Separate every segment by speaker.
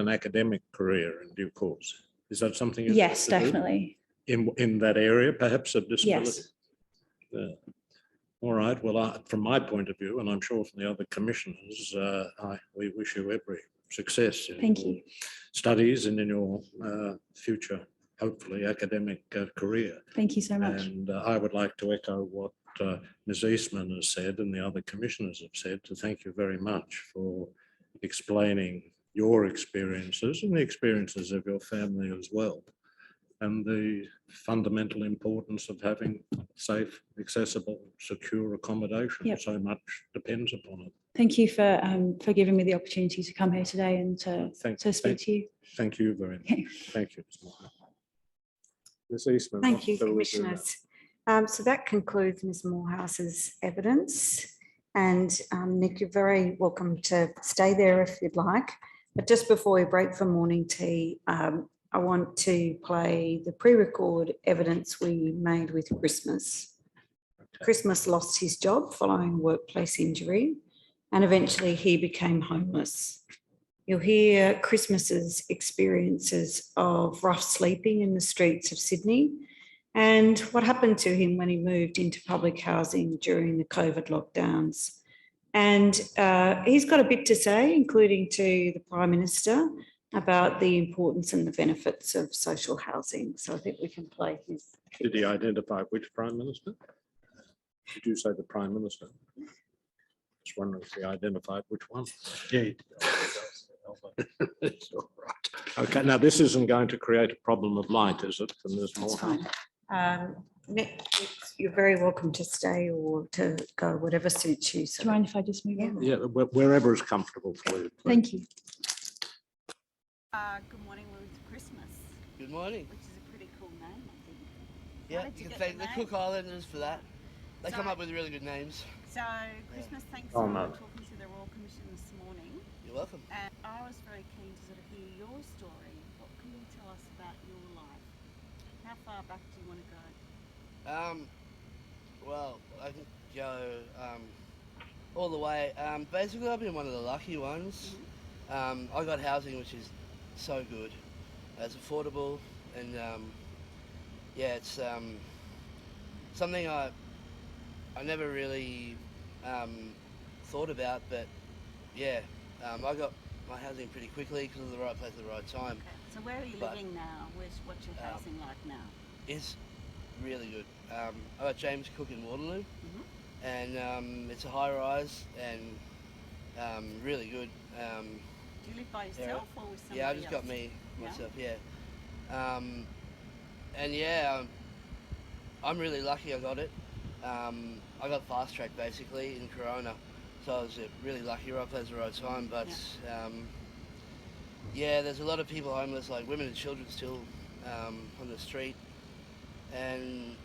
Speaker 1: an academic career in due course. Is that something? you'd
Speaker 2: Yes,
Speaker 1: like to do?
Speaker 2: definitely.
Speaker 1: In, in that area, perhaps of disability?
Speaker 2: Yes.
Speaker 1: Yeah. All right, well, I- from my point of view, and I'm sure from the other commissioners, uh, I, we wish you every success. in
Speaker 2: Thank
Speaker 1: your
Speaker 2: you.
Speaker 1: Studies and in your uh, future, hopefully academic uh, career.
Speaker 2: Thank you so
Speaker 3: Um,
Speaker 2: much.
Speaker 1: And uh, I would like to echo what uh, Ms Eastman has said and the other commissioners have said, to thank you very much for explaining your experiences and the experiences of your family as well. And the fundamental importance of having safe, accessible, secure accommodation.
Speaker 2: Yep.
Speaker 1: So much depends upon it.
Speaker 2: Thank you for, um, for giving me the opportunity to come here today and to,
Speaker 1: Thank-
Speaker 2: to
Speaker 1: thank-
Speaker 2: speak to you.
Speaker 1: Thank you very much. Thank you. Ms. Martin. Ms Eastman.
Speaker 3: Thank
Speaker 1: what
Speaker 3: you,
Speaker 1: shall we do now?
Speaker 3: Commissioners. Um, So that concludes Ms Morehouse's evidence. And um, Nick, you're very welcome to stay there if you'd like. But just before we break for morning tea, um, I want to play the pre-record evidence we made with Christmas. Christmas lost his job following a workplace injury and eventually he became homeless. You'll hear Christmas's experiences of rough sleeping in the streets of Sydney and what happened to him when he moved into public housing during the COVID lockdowns. And uh, he's got a bit to say, including to the Prime Minister, about the importance and the benefits of social housing. So I think we can play his.
Speaker 1: Did he identify which prime minister? Did you say the prime minister? Just wondering if he identified which one.
Speaker 4: Yeah.
Speaker 1: It's all right. Okay, now this isn't going to create a problem of light, is it? And there's
Speaker 3: That's
Speaker 1: more.
Speaker 3: fine. Um, Nick, you're very welcome to stay or to go, whatever suits you.
Speaker 2: Do
Speaker 3: So
Speaker 2: you mind if I just move on?
Speaker 1: Yeah, wh- wherever is comfortable for you. please.
Speaker 2: Thank you.
Speaker 5: Uh, good morning with Christmas,
Speaker 4: Good morning.
Speaker 5: which is a pretty cool name, I think.
Speaker 4: Yeah,
Speaker 5: did you
Speaker 4: you
Speaker 5: get
Speaker 4: can thank
Speaker 5: the
Speaker 4: the Cook Islanders for that. They come
Speaker 5: So-
Speaker 4: up with really good names.
Speaker 5: So Christmas, thanks
Speaker 1: Oh,
Speaker 5: for
Speaker 1: no.
Speaker 5: talking to the Royal Commission this morning.
Speaker 4: You're welcome.
Speaker 5: And I was very keen to sort of hear your story. What can you tell us about your life? How far back do you want to go?
Speaker 4: Um, well, I can go um, all the way. Um, basically, I've been one of the lucky ones. Um, I got housing, which is so good. It's affordable, and um, yeah, it's um, something I I never really um, thought about, but yeah, um, I got my housing pretty quickly because of the right place at the right time.
Speaker 5: Okay. So where are you
Speaker 4: But-
Speaker 5: living now? Where's what's your
Speaker 4: Um,
Speaker 5: housing like now?
Speaker 4: is really good. Um, I got James Cook in Waterloo,
Speaker 5: Mm-hmm.
Speaker 4: and um, it's a high rise and um, really good. Um,
Speaker 5: Do you live by yourself or with somebody
Speaker 4: yeah, I just
Speaker 5: else?
Speaker 4: got me
Speaker 5: Yeah?
Speaker 4: myself. Yeah, um, and yeah, I'm, I'm really lucky. I got it. Um, I got fast track basically in Corona, so I was uh, really lucky. Right place at the right time, but. Um, yeah, there's a lot of people homeless, like women and children still um, on the street, and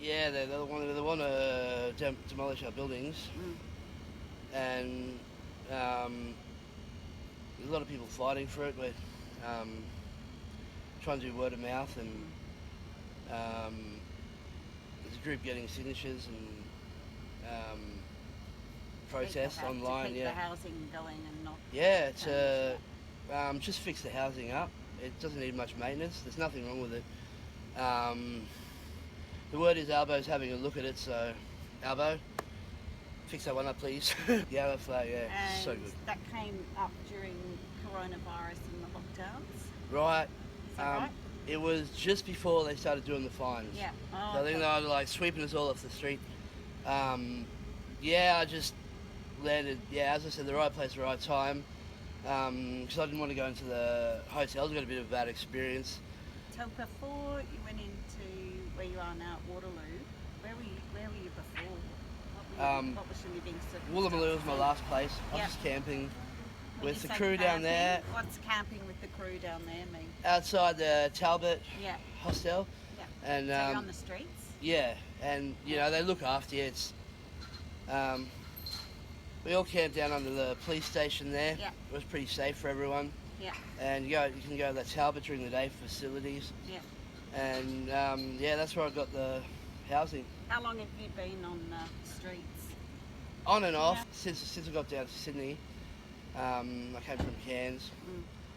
Speaker 4: yeah, they, they want they want to dem- uh, demolish our buildings,
Speaker 5: Mm.
Speaker 4: and um, there's a lot of people fighting for it. We're um, trying to do word of mouth, and um, there's a group getting signatures and um,
Speaker 5: Keep the
Speaker 4: protests
Speaker 5: hou- To
Speaker 4: online.
Speaker 5: keep
Speaker 4: Yeah,
Speaker 5: the housing going and not.
Speaker 4: yeah, it's
Speaker 5: change
Speaker 4: a,
Speaker 5: that.
Speaker 4: um, just fix the housing up. It doesn't need much maintenance. There's nothing wrong with it. Um, the word is Albo's having a look at it, so Albo, fix that one up, please. the other flag, yeah,
Speaker 5: And
Speaker 4: so good.
Speaker 5: that came up during coronavirus and the lockdowns. Is
Speaker 4: Right,
Speaker 5: that
Speaker 4: Um,
Speaker 5: right?
Speaker 4: it was just before they started doing the fines.
Speaker 5: Yeah. Oh,
Speaker 4: So I think
Speaker 5: okay.
Speaker 4: they were like sweeping us all off the street. Um, yeah, I just landed. Yeah, as I said, the right place, the right time. Because I didn't want to go into the hotels. I got a bit of a bad experience.
Speaker 5: So before you went into where you are now at Waterloo, where were you, where were you before? What, were you,
Speaker 4: Um,
Speaker 5: what was your living circumstances?
Speaker 4: Woolloomooloo was my last place. I was
Speaker 5: Yeah.
Speaker 4: just camping
Speaker 5: When
Speaker 4: with
Speaker 5: you
Speaker 4: the
Speaker 5: say
Speaker 4: crew down
Speaker 5: camping,
Speaker 4: there,
Speaker 5: What's camping with the crew down there mean?
Speaker 4: outside the Talbot
Speaker 5: Yeah,
Speaker 4: hostel,
Speaker 5: yeah.
Speaker 4: and
Speaker 5: so you're
Speaker 4: um,
Speaker 5: on the streets?
Speaker 4: yeah, and you know they look after you. It's um, we all camped down under the police station there.
Speaker 5: Yeah.
Speaker 4: It was pretty safe for everyone,
Speaker 5: Yeah,
Speaker 4: and you go you can go to the Talbot during the day for facilities,
Speaker 5: yeah.
Speaker 4: and um, yeah, that's where I got the housing
Speaker 5: How long have you been on the streets?
Speaker 4: on and off
Speaker 5: Yeah.
Speaker 4: since since I got down to Sydney. Um, I came from Cairns,
Speaker 5: Mm.